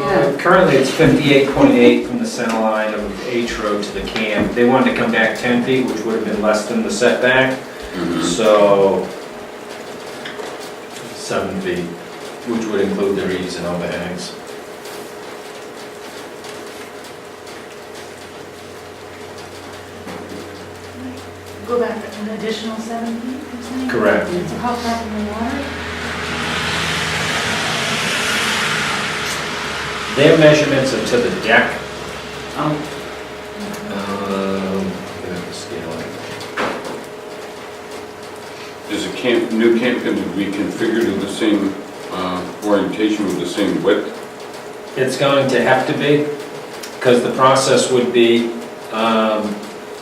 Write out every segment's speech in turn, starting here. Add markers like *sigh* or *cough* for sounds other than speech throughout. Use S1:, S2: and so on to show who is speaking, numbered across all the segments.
S1: Current- Currently, it's 58.8 from the center line of H Road to the camp. They wanted to come back 10 feet, which would have been less than the setback, so seven feet, which would include their eaves and overhangs.
S2: Go back an additional seven feet, you're saying?
S1: Correct.
S2: So how far from the water?
S1: Their measurements are to the deck.
S3: Oh,
S1: Um, I'm gonna have to Um, scale it.
S4: Is a camp, new camp going to be configured in the same uh, orientation with the same width?
S1: It's going to have to be, because the process would be, um,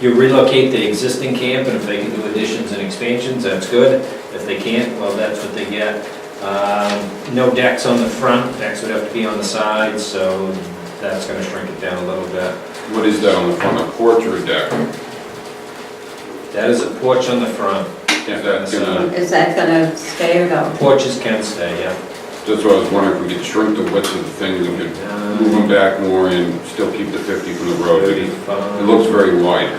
S1: you relocate the existing camp, and if they can do additions and expansions, that's good. If they can't, well, that's what they get. Um, No decks on the front, decks would have to be on the sides, so that's gonna shrink it down a little bit.
S4: What is that on the front, a porch or a deck?
S1: That is a porch on the front.
S4: Is that gonna,
S3: is that gonna stay or go?
S1: Porches can stay, yeah.
S4: that's what I was wondering, if we could shrink the width of the thing, we could move them back more and still keep the 50 from the Mm-hmm. road. It it looks very wide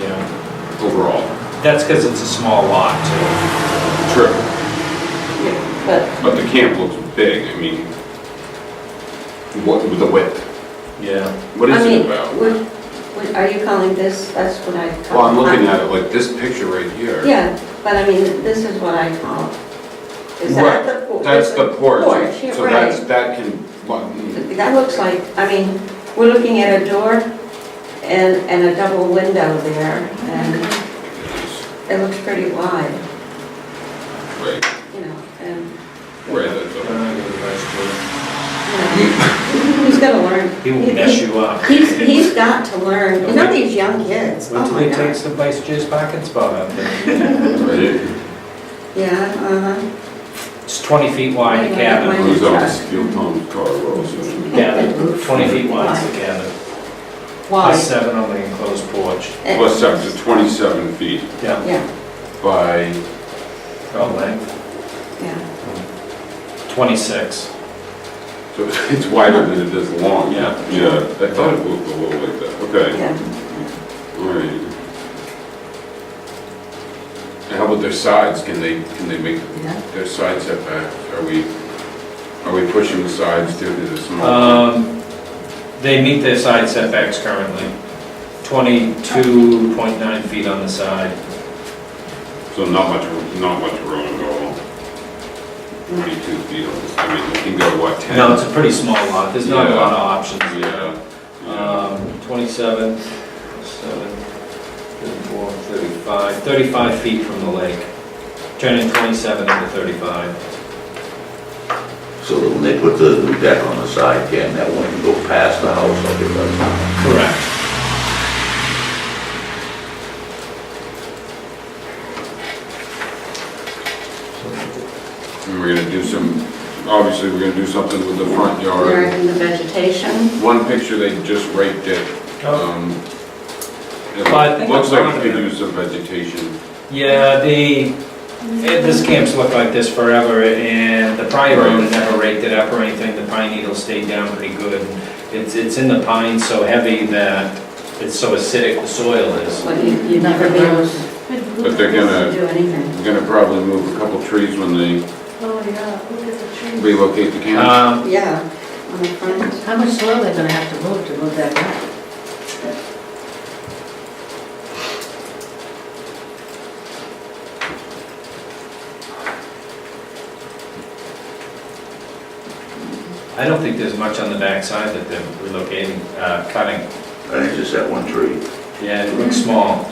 S1: Yeah,
S4: overall.
S1: that's because it's a small lot, too.
S4: True,
S3: But
S4: but the camp looks big, I mean, what, with the width?
S1: Yeah.
S4: What
S3: I
S4: is
S3: mean,
S4: it about?
S3: would- would- Are you calling this, that's what I call.
S4: Well, I'm looking at it like this picture right here.
S3: Yeah, but I mean, this is what I call. Is that
S4: Right,
S3: the porch?
S4: That's the porch.
S3: Porch, yeah,
S4: So that's,
S3: right.
S4: that can,
S3: That looks like, I mean, we're looking at a door and, and a double window there, and it looks pretty wide,
S4: right,
S3: you know, and,
S4: right, that's
S1: I'm
S4: a-
S1: gonna give advice
S3: you
S1: *laughs*
S3: know, he's gonna learn.
S1: to you. He will mess you up.
S3: He's, he's got to learn, you know, these young kids,
S1: Wait
S3: oh
S1: till
S3: my
S1: he
S3: God.
S1: takes the vice chair's parking spot out there.
S4: right.
S3: Yeah, uh-huh,
S1: It's 20 feet wide, the
S3: Wait,
S1: cabin.
S3: wait,
S4: Who's on Steel Tom's car, Ross?
S1: Cabin, 20 feet wide is the cabin. Plus
S3: wide.
S1: seven on the enclosed porch.
S4: Plus up to 27 feet
S1: Yeah,
S3: Eh, Yeah,
S4: by,
S1: oh, length,
S3: yeah,
S1: 26.
S4: so it's wider than it is long.
S1: Yeah.
S4: Yeah, I thought it looked a little like that, okay,
S3: yeah.
S4: all right. And how about their sides, can they, can they make
S3: Yeah.
S4: their side setbacks? Are we, are we pushing the sides due to the small?
S1: Um, They meet their side setbacks currently, 22.9 feet on the side.
S4: So not much, not much room at all. 22 feet, on this. I mean, you can go, what, 10?
S1: No, it's a pretty small lot, there's not a lot of options.
S4: Yeah. yeah.
S1: Um, 27, 7, 34, 35, 35 feet from the lake, turning 27 into 35.
S5: So when they put the new deck on the side, can that one go past the house like it does now?
S1: Correct.
S4: And we're gonna do some, obviously, we're gonna do something with the front
S3: There
S4: yard.
S3: in the vegetation,
S4: One picture, they just raked it. um, it
S1: Well, Oh. I think
S4: Looks
S1: I'm
S4: like it could
S1: confident.
S4: use some vegetation.
S1: Yeah, the, eh, this camp's looked like this forever, and the prior owner never raked it up or anything, the pine needles stayed down pretty good. It's, it's in the pine so heavy that it's so acidic the soil is.
S3: what you, you'd never be able to
S4: But they're gonna-
S3: do anything.
S4: We're gonna probably move a couple trees when they
S2: Oh, yeah, look at the trees.
S4: relocate the camp.
S1: Um,
S3: Yeah, on the front.
S6: How much soil they gonna have to move to move that back?
S1: I don't think there's much on the backside that they're relocating, uh, cutting.
S5: I think just that one tree.
S1: Yeah, it looks small.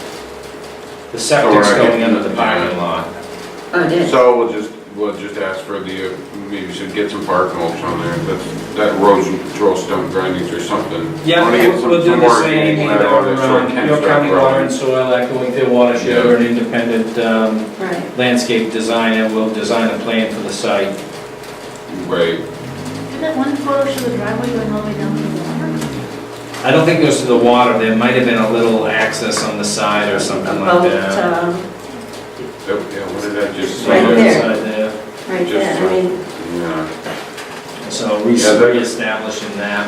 S1: The septic's going into the parking lot.
S3: Oh, it is.
S4: So we'll just, we'll just ask for the, uh, maybe we should get some bark mulch on there, that's, that erosion control stump grindings or something.
S1: Yeah,
S4: Wanna get
S1: we'll
S4: some-
S1: we'll do
S4: some
S1: the
S4: more
S1: same,
S4: organic
S1: either
S4: matter, so it
S1: around
S4: can
S1: York
S4: start
S1: County
S4: growing.
S1: Water and Soil Echoing Their Watershed
S4: Yeah.
S1: or an independent um,
S3: Right.
S1: landscape designer will design a plan for the site.
S4: Right,
S2: Did that one photo show the driveway going all the way down to the water?
S1: I don't think it goes to the water, there might have been a little access on the side or something
S3: About,
S1: like that.
S3: um,
S4: yeah, what did I just
S3: Right
S4: say?
S1: Somewhere
S3: there.
S1: inside there.
S3: right
S4: Just
S3: there, I mean.
S4: Yeah.
S1: So
S4: Yeah, that-
S1: re- reestablishing that.